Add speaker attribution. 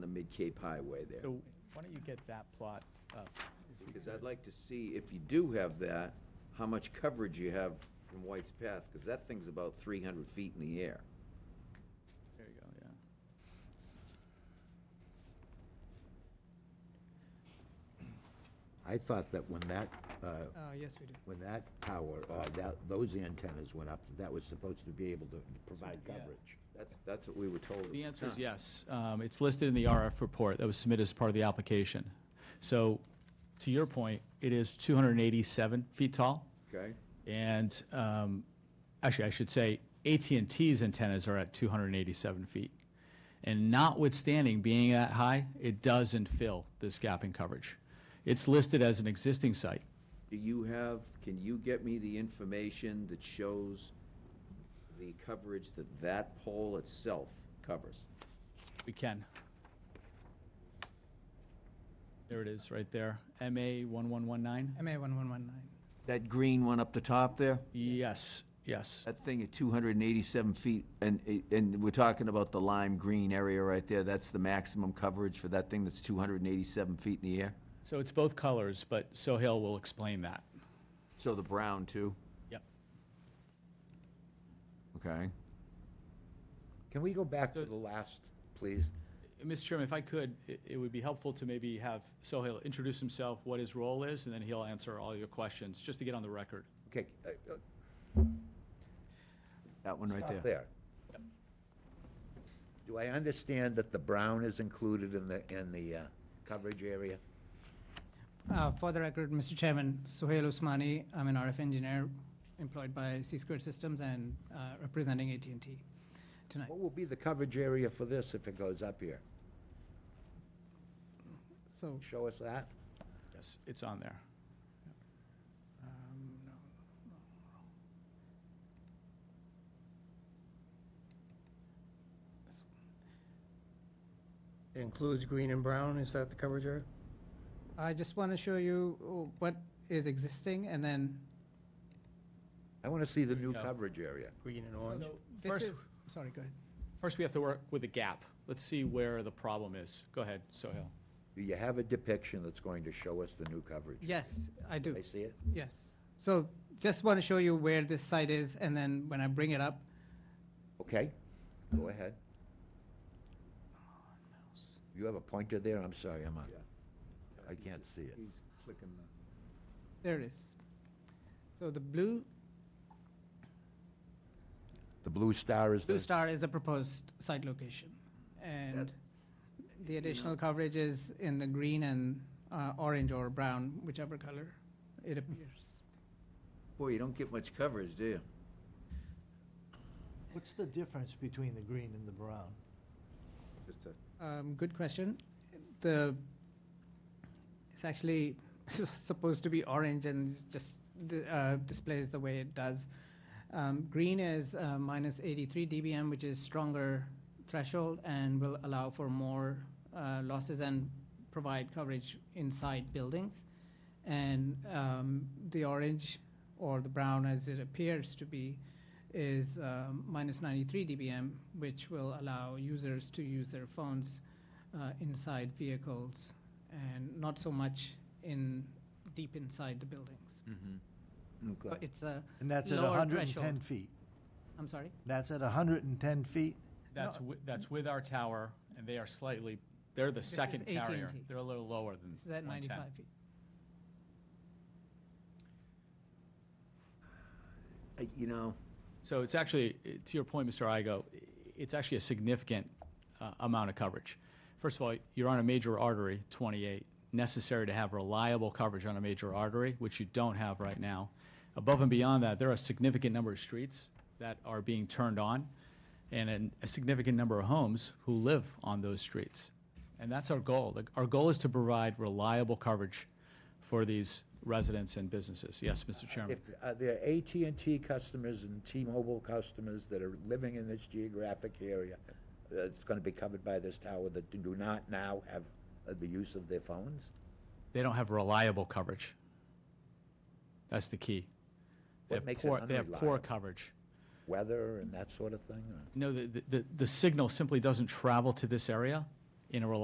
Speaker 1: Cape Highway there.
Speaker 2: So why don't you get that plot up?
Speaker 1: Because I'd like to see, if you do have that, how much coverage you have from White's Path, because that thing's about 300 feet in the air.
Speaker 2: There you go, yeah.
Speaker 3: I thought that when that, uh,
Speaker 4: Oh, yes, we do.
Speaker 3: when that tower, uh, that, those antennas went up, that was supposed to be able to provide
Speaker 2: yeah.
Speaker 3: coverage.
Speaker 1: That's, that's what we were told. at
Speaker 2: The answer is
Speaker 1: time.
Speaker 2: yes. Um, It's listed in the RF report that was submitted as part of the application. So to your point, it is 287 feet tall.
Speaker 1: Okay?
Speaker 2: And um, actually, I should say at and ts antennas are at 287 feet. And notwithstanding being that high, it doesn't fill this gap in coverage. It's listed as an existing site.
Speaker 1: Do you have, can you get me the information that shows the coverage that that pole itself covers?
Speaker 2: We can. There it is, right there. MA 1119?
Speaker 4: MA 1119.
Speaker 1: That green one up the top there?
Speaker 2: Yes, yes.
Speaker 1: That thing at 287 feet, and, and we're talking about the lime green area right there, that's the maximum coverage for that thing that's 287 feet in the air?
Speaker 2: So it's both colors, but Sohail will explain that.
Speaker 1: So the brown, too?
Speaker 2: Yep.
Speaker 1: Okay.
Speaker 3: Can we go back to the last, please?
Speaker 2: Mr. Chairman, if I could, i- it would be helpful to maybe have Sohail introduce himself, what his role is, and then he'll answer all your questions, just to get on the record.
Speaker 3: Okay, uh, uh,
Speaker 1: That one right
Speaker 3: stop
Speaker 1: there.
Speaker 3: there. Do I understand that the brown is included in the, in the uh, coverage area?
Speaker 4: Uh, For the record, Mr. Chairman, Sohail Usmani, I'm an RF engineer employed by C Squared Systems and uh, representing at and t tonight.
Speaker 3: What will be the coverage area for this if it goes up here?
Speaker 4: So,
Speaker 3: Show us that?
Speaker 2: Yes, it's on there.
Speaker 4: um,
Speaker 5: It includes green and brown, is that the coverage area?
Speaker 4: I just want to show you uh, what is existing, and then
Speaker 3: I want to see the new
Speaker 2: go.
Speaker 3: coverage area.
Speaker 5: Green and orange?
Speaker 4: this
Speaker 2: First-
Speaker 4: is, sorry, go ahead.
Speaker 2: First, we have to work with the gap. Let's see where the problem is. Go ahead, Sohail.
Speaker 3: Do you have a depiction that's going to show us the new coverage?
Speaker 4: Yes, I do.
Speaker 3: I see it?
Speaker 4: Yes. So just want to show you where this site is, and then when I bring it up,
Speaker 3: Okay, go ahead. You have a pointer there? I'm sorry, I'm, a- I can't see it.
Speaker 1: He's clicking the.
Speaker 4: there it is. So the blue,
Speaker 3: The blue star is the...
Speaker 4: blue star is the proposed site location. And the additional coverage is in the green and uh, orange or brown, whichever color it appears.
Speaker 1: Boy, you don't get much coverage, do you?
Speaker 6: What's the difference between the green and the brown?
Speaker 1: Just a.
Speaker 4: Um, Good question. The, it's actually supposed to be orange and it's just di- uh, displays the way it does. Um, Green is uh, minus 83 dBm, which is stronger threshold and will allow for more uh, losses and provide coverage inside buildings. And um, the orange or the brown, as it appears to be, is um, minus 93 dBm, which will allow users to use their phones uh, inside vehicles and not so much in, deep inside the buildings. So
Speaker 1: Okay.
Speaker 4: it's a
Speaker 6: And that's at
Speaker 4: Lower
Speaker 6: 110
Speaker 4: threshold.
Speaker 6: feet.
Speaker 4: I'm sorry?
Speaker 6: That's at 110 feet?
Speaker 2: That's, wi- that's with our tower, and they are slightly, they're the
Speaker 4: is
Speaker 2: second carrier.
Speaker 4: AT&T.
Speaker 2: They're a little lower than
Speaker 4: This is at
Speaker 2: 110.
Speaker 4: 95 feet.
Speaker 1: Uh, You know,
Speaker 2: So it's actually, eh, to your point, Mr. Igo, i- it's actually a significant uh, amount of coverage. First of all, you're on a major artery, 28, necessary to have reliable coverage on a major artery, which you don't have right now. Above and beyond that, there are a significant number of streets that are being turned on, and an- a significant number of homes who live on those streets. And that's our goal. Like, Our goal is to provide reliable coverage for these residents and businesses. Yes, Mr. Chairman?
Speaker 3: If, are there at and T customers and T-Mobile customers that are living in this geographic area that's going to be covered by this tower that do not now have uh, the use of their phones?
Speaker 2: they don't have reliable coverage. That's the key. They
Speaker 3: What
Speaker 2: have
Speaker 3: makes it
Speaker 2: poor, they have poor
Speaker 3: unreliable?
Speaker 2: coverage.
Speaker 3: Weather and that sort of thing? or-
Speaker 2: No, the, the, the signal simply doesn't travel to this area in a reliable